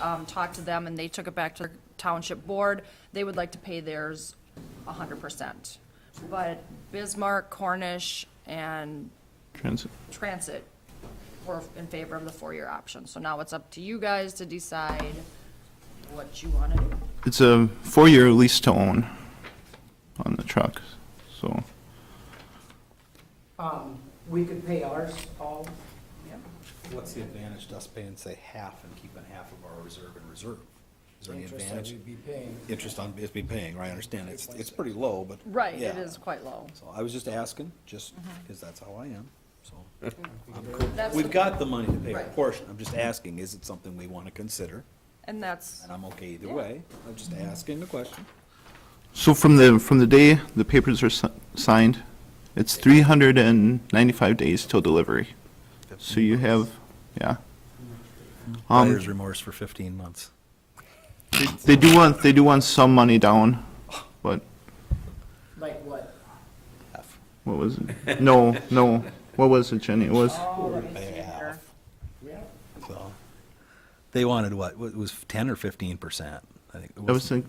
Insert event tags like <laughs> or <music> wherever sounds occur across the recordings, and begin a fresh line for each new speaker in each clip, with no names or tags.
um, talked to them, and they took it back to their township board. They would like to pay theirs hundred percent. But Bismarck, Cornish, and
Transit.
Transit were in favor of the four-year option. So now it's up to you guys to decide what you want to do.
It's a four-year lease to own on the truck, so,
Um, we could pay ours all,
What's the advantage to us paying, say, half and keeping half of our reserve in reserve? Is there any
interest that
advantage?
we'd be paying.
Interest on, is be paying, right, I understand, it's, it's pretty low, but.
Right, it
yeah.
is quite Mm-hmm. low.
So I was just asking, just, because that's how I am, so.
That's
We've
the-
got the money to pay a
Right.
portion, I'm just asking, is it something we want to consider?
And that's,
And I'm okay either
Yeah.
way, I'm just asking the question.
so from the, from the day the papers are si- signed, it's 395 days till delivery. So you have, yeah. Um,
Buyer's remorse for fifteen months.
They do want, they do want some money down, but
like what?
Half.
what was it? No, no, what was it, Jenny? It was,
Oh, let me see
Pay
here.
half.
Yeah,
Well, They wanted what, What- it was ten or fifteen percent, I think. it
I was
I
like,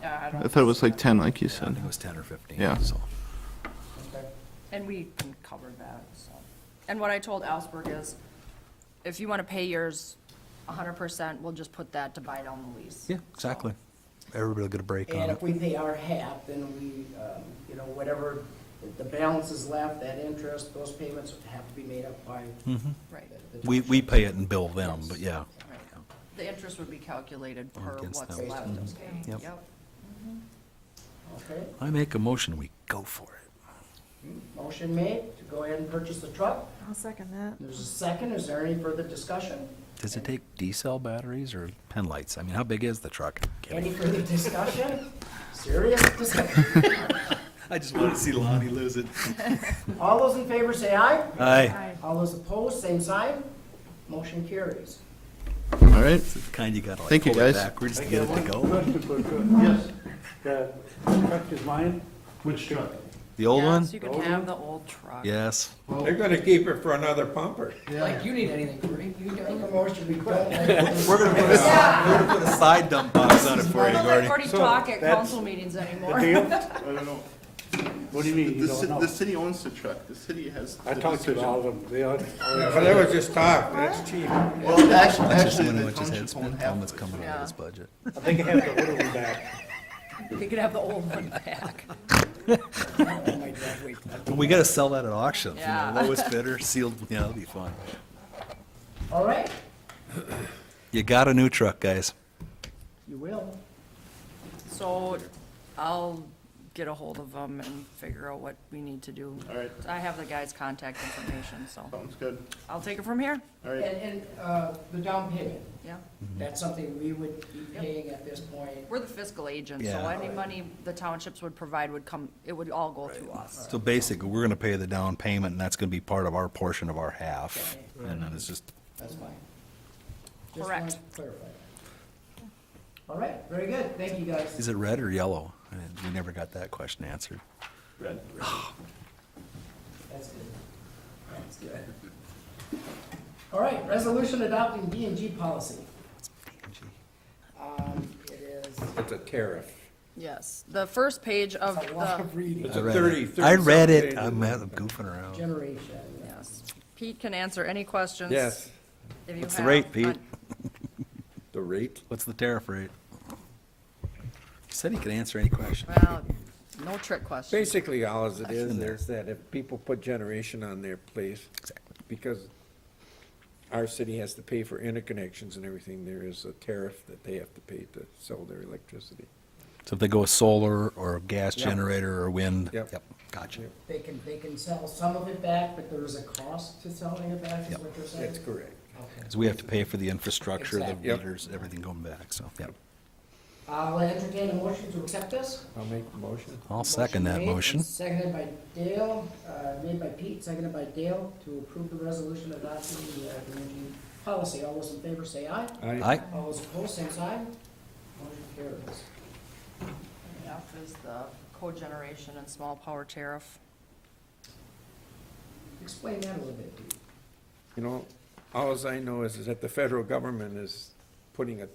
yeah, I
I
don't,
thought it was like 10, like you
think
said.
it was ten or fifteen,
Yeah.
so.
okay.
and we can cover that, so. And what I told Alsberg is, if you want to pay yours hundred percent, we'll just put that to buy down the lease.
Yeah, exactly. Everybody get a break on
And if
it.
we pay our half, then we, um, you know, whatever, the balance is left, that interest, those payments have to be made up by.
Right,
the- the
Mm-hmm. We, we pay it and bill them, but yeah.
right. The interest would be calculated per
Against
what's
them.
left of paying.
Yep.
Okay,
I make a motion, we go for it.
motion made to go ahead and purchase the truck.
I'll second that.
There's a second, is there any further discussion?
Does it take D-cell batteries or pen lights? I mean, how big is the truck?
Any further discussion? Serious discussion?
I just want to see Lonnie lose it.
All those in favor say aye.
Aye,
All those opposed, same sign. Motion carries.
All right,
It's the kind you gotta like
Thank you,
pull it
guys.
backwards to get it to go.
Yes. The truck is mine? Which truck?
The old one?
Yes, you can have the old truck.
Yes.
They're gonna keep it for another pumper.
Like, you need anything, Cory? You don't need a motion, we don't.
We're gonna put a, we're gonna put a side dump box on it for
I
you,
don't let
Gordy.
Gordy
So,
talk at
that's-
council meetings
The
anymore. <laughs>
deal? I don't know. What do you mean, you don't know?
city owns the truck, the city has
I talked to all of them, they all.
But that was just talk, that's cheap.
Well, actually,
That's just the
actually,
one who
the
went to his head
township
spin,
owned
tell him
half.
it's coming out of his budget.
I think I have the little one back.
You can have the old one back.
We gotta sell that at auction, you know,
Yeah.
lowest bidder, sealed, yeah, that'd be fun.
All right,
You got a new truck, guys.
you will.
So I'll get a hold of them and figure out what we need to do.
All right.
I have the guy's contact information, so
Sounds good,
I'll take it from here,
all
And,
right.
and, uh, the down payment,
yeah.
that's something we would be paying at this point.
We're the fiscal agent, so
Yeah.
any money the townships would provide would come, it would all go through us.
So basically, we're gonna pay the down payment, and that's gonna be part of our portion of our half, and then it's just,
That's fine. Just wanted
Correct.
to clarify that. All right, very good, thank you guys.
is it red or yellow? I mean, We never got that question answered.
That's good. That's good. All right, resolution adopting B and G policy. Um, it is
It's a tariff.
Yes, the first page of
a lot
the,
of reading.
It's
I
a
read
thirty,
it.
thirty.
I read it,
something.
I'm mad- I'm goofing around.
generation.
yes, Pete can answer any questions.
Yes,
if you
What's the
have,
rate, Pete?
but-
the rate.
What's the tariff rate? He said he could answer any question.
Well, no trick question.
Basically, all as it
That's in
is,
there.
there's that if people put generation on there, please. Because our city has to pay for interconnections and everything, there is a tariff that they have to pay to sell their electricity.
So if they go with solar, or a gas generator, or wind?
Yep.
Gotcha.
They can, they can sell some of it back, but there is a cost to selling it back, is
Yep.
what you're saying?
That's correct.
Okay.
Because we have to pay for the infrastructure, the
Exactly.
Yep.
meters, everything going back, so, yeah.
I'll entertain a motion to accept this.
I'll make the motion.
I'll second that
made and
motion.
Seconded by Dale, uh, made by Pete, seconded by Dale to approve the resolution adopting the uh, energy policy. All those in favor say aye.
Aye,
All those opposed, same sign. Motion carries.
F is the cogeneration and small power tariff.
Explain that a little bit, Pete.
You know, all as I know is, is that the federal government is putting a